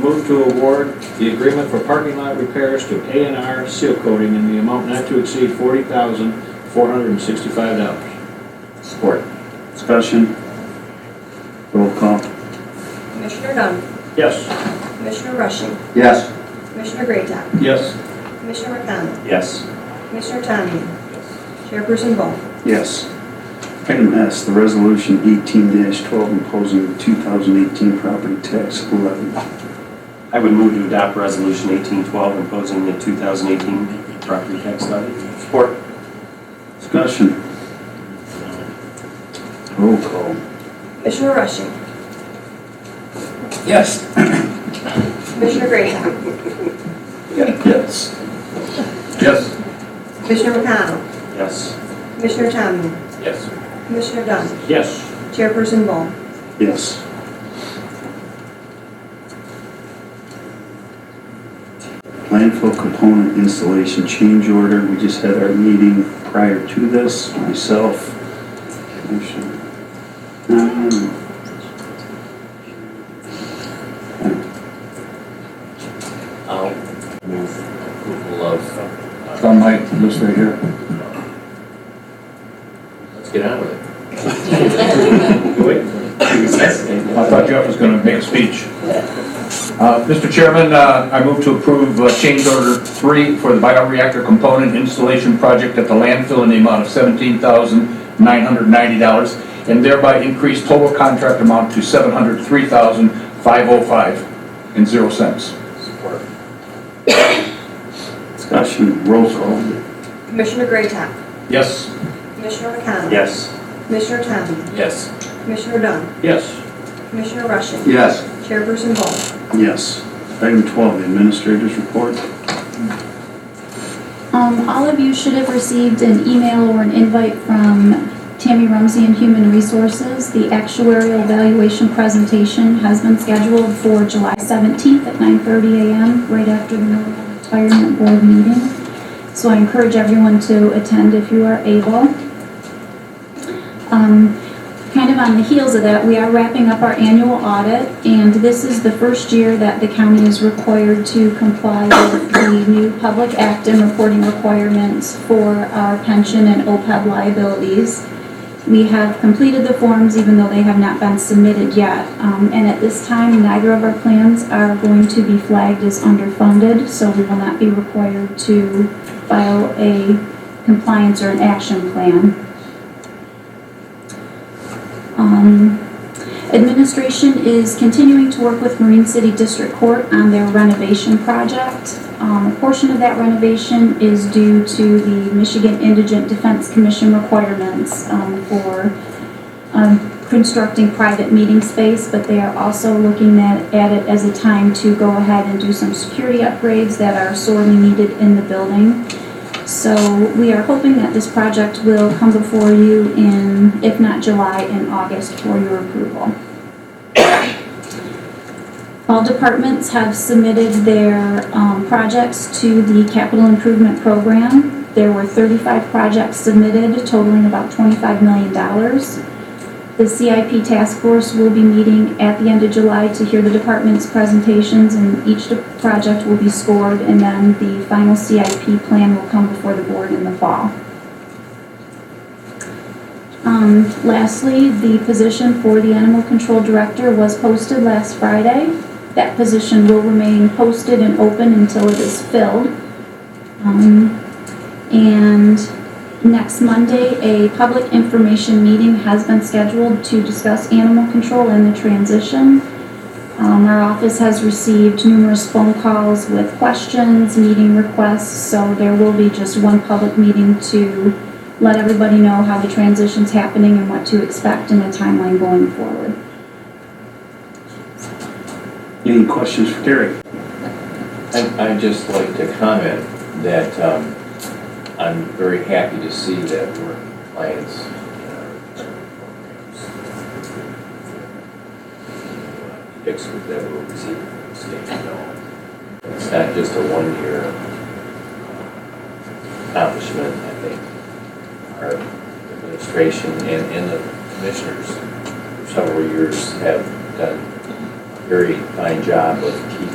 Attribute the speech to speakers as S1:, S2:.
S1: Move to award the agreement for parking lot repairs to A and R Seal Coating in the amount not to exceed forty thousand, four hundred and sixty-five dollars.
S2: Support. Discussion. Roll call.
S3: Commissioner Dunn.
S1: Yes.
S3: Commissioner Rushing.
S2: Yes.
S3: Commissioner Greatham.
S1: Yes.
S3: Commissioner McDonald.
S2: Yes.
S3: Commissioner Tamian. Chairperson Ball.
S2: Yes. Item S, the resolution eighteen twelve imposing the two thousand eighteen property tax levy.
S4: I would move to adopt Resolution 1812 imposing the 2018 property tax levy.
S2: Support. Discussion. Roll call.
S3: Commissioner Rushing.
S2: Yes.
S3: Commissioner Greatham.
S2: Yes.
S1: Yes.
S3: Commissioner McDonald.
S4: Yes.
S3: Commissioner Tamian.
S1: Yes.
S3: Commissioner Dunn.
S1: Yes.
S3: Chairperson Ball.
S2: Yes. Landfill component installation change order, we just had our meeting prior to this, myself. Commissioner. Um,
S5: I'll move approval of, uh,
S6: Tom Height, this right here.
S5: let's get on with it.
S1: Wait.
S6: I thought Jeff was going to make a speech. Uh, Mr. Chairman, uh, I move to approve uh, change order three for the bioreactor component installation project at the landfill in the amount of $17,990 and thereby increase total contract amount to $703,505 and zero cents.
S5: Support.
S2: Discussion, roll call.
S3: Commissioner Greatham.
S6: Yes.
S3: Commissioner McDonald.
S4: Yes.
S3: Commissioner Tamian.
S5: Yes.
S3: Commissioner Dunn.
S1: Yes.
S3: Commissioner Rushing.
S2: Yes.
S3: Chairperson Ball.
S2: Yes. Item 12, the administrators report.
S7: Um, all of you should have received an email or an invite from Tammy Rumsey and Human Resources. The actuarial valuation presentation has been scheduled for July seventeenth at nine thirty AM, right after the Millville Retirement Board meeting. So I encourage everyone to attend if you are able. Um, kind of on the heels of that, we are wrapping up our annual audit, and this is the first year that the county is required to comply with the new Public Act and reporting requirements for our pension and OPEB liabilities. We have completed the forms, even though they have not been submitted yet, Um, and at this time, neither of our plans are going to be flagged as underfunded, so we will not be required to file a compliance or an action plan. Um, Administration is continuing to work with Marine City District Court on their renovation project. Um, A portion of that renovation is due to the Michigan Indigent Defense Commission requirements um, for um, constructing private meeting space, but they are also looking at at it as a time to go ahead and do some security upgrades that are sorely needed in the building. So we are hoping that this project will come before you in, if not July, in August for your approval. All departments have submitted their um, projects to the capital improvement program. There were 35 projects submitted totaling about $25 million. The CIP task force will be meeting at the end of July to hear the department's presentations and each de- project will be scored and then the final CIP plan will come before the board in the fall. Um, lastly, the position for the animal control director was posted last Friday. That position will remain posted and open until it is filled. Um, and Next Monday, a public information meeting has been scheduled to discuss animal control and the transition. Um, our office has received numerous phone calls with questions, meeting requests, so there will be just one public meeting to let everybody know how the transition's happening and what to expect and a timeline going forward.
S2: Any questions for Terry?
S5: And I'd just like to comment that um, I'm very happy to see that we're in compliance in our programs. Fix that we're receiving from the state, you know. It's not just a one-year uh, accomplishment, I think. Our administration and, and the commissioners for several years have done a very fine job of keeping